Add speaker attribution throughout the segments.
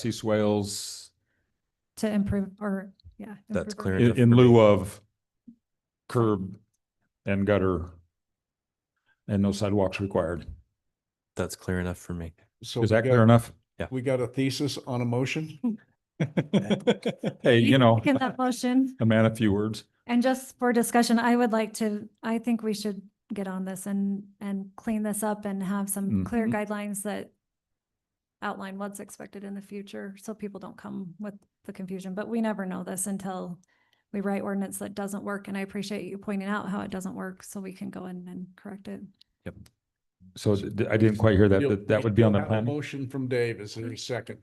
Speaker 1: sea swales
Speaker 2: to improve or, yeah.
Speaker 3: That's
Speaker 2: improve our-
Speaker 3: clear
Speaker 1: in, in lieu of curb and gutter and no sidewalks required.
Speaker 3: That's clear enough for me.
Speaker 4: So
Speaker 1: Is
Speaker 4: we
Speaker 1: that
Speaker 4: got-
Speaker 1: clear enough?
Speaker 4: We got a thesis on a motion?
Speaker 1: Hey,
Speaker 2: You
Speaker 1: you know,
Speaker 2: Second that motion.
Speaker 1: a man of few words.
Speaker 2: And just for discussion, I would like to, I think we should get on this and, and clean this up and have some clear
Speaker 1: Mhm.
Speaker 2: guidelines that outline what's expected in the future, so people don't come with the confusion, but we never know this until we write ordinance that doesn't work, and I appreciate you pointing out how it doesn't work, so we can go in and correct it.
Speaker 1: So d- I didn't quite hear that,
Speaker 4: You'll-
Speaker 1: that, that would be on the
Speaker 4: you'll have a
Speaker 1: planning.
Speaker 4: Motion from Dave, is there a second?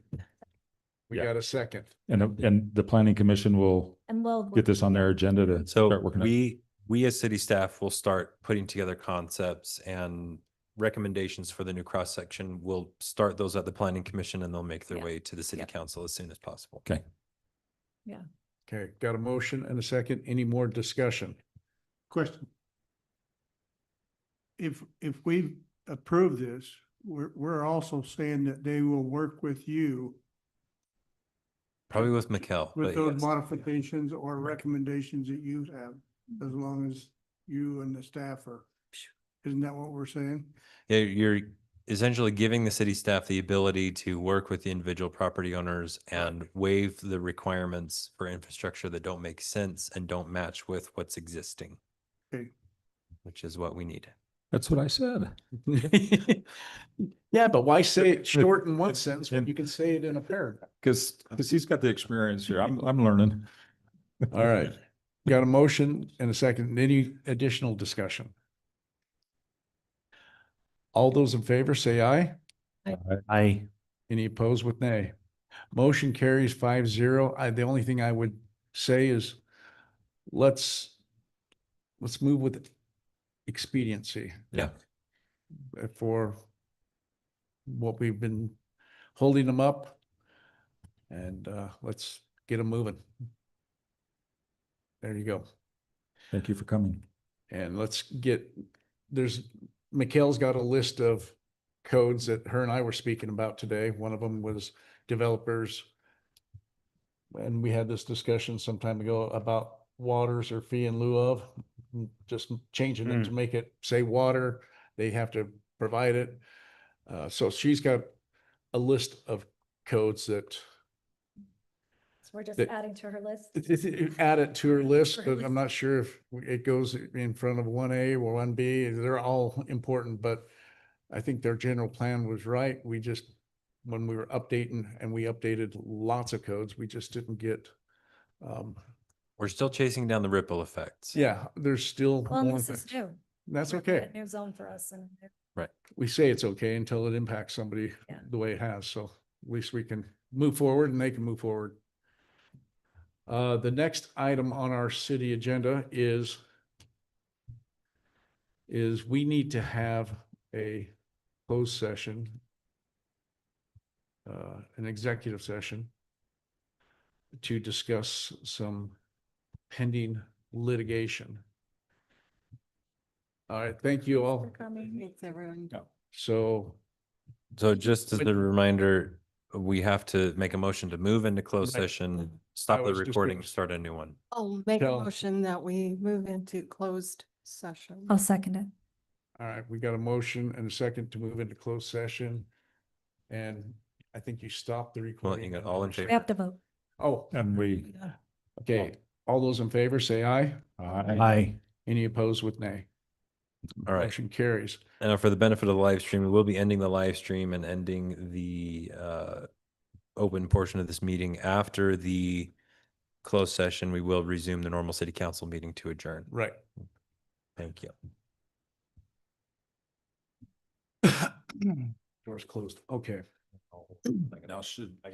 Speaker 4: We
Speaker 1: Yeah.
Speaker 4: got a second.
Speaker 1: And, uh, and the planning commission will
Speaker 2: And we'll.
Speaker 1: get this on their agenda to
Speaker 3: So
Speaker 1: start working. on it.
Speaker 3: we, we as city staff will start putting together concepts and recommendations for the new cross section. We'll start those at the planning commission and they'll make their
Speaker 2: Yeah.
Speaker 3: way to the city
Speaker 2: Yeah.
Speaker 3: council as soon as possible.
Speaker 1: Okay.
Speaker 4: Okay, got a motion and a second. Any more discussion?
Speaker 5: Question. If, if we approve this, we're, we're also saying that they will work with you
Speaker 3: Probably with Mikkel.
Speaker 5: with
Speaker 3: but
Speaker 5: those
Speaker 3: Oh, yes.
Speaker 5: modifications or recommendations that you have, as long as you and the staff are. Isn't that what we're saying?
Speaker 3: Yeah, you're essentially giving the city staff the ability to work with the individual property owners and waive the requirements for infrastructure that don't make sense and don't match with what's existing.
Speaker 5: Okay.
Speaker 3: Which is what we need.
Speaker 1: That's what I said.
Speaker 4: Yeah, but why say it short in one sentence when you can say it in a paragraph?
Speaker 1: Cause, cause he's got the experience here. I'm, I'm learning.
Speaker 4: All right, got a motion and a second. Any additional discussion? All those in favor say aye.
Speaker 3: I.
Speaker 4: Any opposed with nay? Motion carries five zero. I, the only thing I would say is let's, let's move with expediency.
Speaker 3: Yeah.
Speaker 4: Uh, For what we've been holding them up. And, uh, let's get them moving. There you go.
Speaker 1: Thank you for coming.
Speaker 4: And let's get, there's, Mikhail's got a list of codes that her and I were speaking about today. One of them was developers. And we had this discussion some time ago about waters or fee in lieu of, m- just m- changing it to make it say water. They have to provide it. Uh, so she's got a list of codes that
Speaker 2: So We're just
Speaker 4: that-
Speaker 2: adding to her list.
Speaker 4: it- it- it- Add it to her list,
Speaker 2: Her
Speaker 4: but I'm
Speaker 2: list.
Speaker 4: not sure if it goes in front of one A or one B. They're all important, but I think their general plan was right. We just, when we were updating and we updated lots of codes, we just didn't get. um,
Speaker 3: We're still chasing down the ripple effects.
Speaker 4: Yeah, there's still.
Speaker 2: Well, and
Speaker 4: more
Speaker 2: this is
Speaker 4: things.
Speaker 2: new.
Speaker 4: That's
Speaker 2: We're looking
Speaker 4: okay.
Speaker 2: at New zone for us and
Speaker 4: we say it's okay until it impacts somebody
Speaker 2: Yeah.
Speaker 4: the way it has, so at least we can move forward and they can move forward. Uh, the next item on our city agenda is is we need to have a closed session, uh, an executive session to discuss some pending litigation. All right, thank you all.
Speaker 6: Thanks, everyone.
Speaker 4: So
Speaker 3: So just as
Speaker 4: But-
Speaker 3: a reminder, we have to make a motion to move into closed
Speaker 4: Right.
Speaker 3: session, stop the
Speaker 4: was just
Speaker 3: recording,
Speaker 4: gonna-
Speaker 3: start a new one.
Speaker 6: I'll make a
Speaker 4: Tell-
Speaker 6: motion that we move into closed session.
Speaker 2: I'll second it.
Speaker 4: All right, we got a motion and a second to move into closed session. And I think you stopped the
Speaker 3: Well,
Speaker 4: recording.
Speaker 3: you got
Speaker 4: at the
Speaker 3: all in
Speaker 4: first-
Speaker 2: We
Speaker 3: favor.
Speaker 2: have to vote.
Speaker 4: Oh,
Speaker 1: And we,
Speaker 4: okay. All those in favor, say aye.
Speaker 1: I,
Speaker 4: Any opposed with nay?
Speaker 3: All right.
Speaker 4: Motion carries.
Speaker 3: And now for the benefit of the live stream, we'll be ending the live stream and ending the uh, open portion of this meeting after the closed session. We will resume the normal city council meeting to adjourn.
Speaker 4: Right.
Speaker 3: Thank you.
Speaker 4: Door's closed. Okay.
Speaker 1: now should, I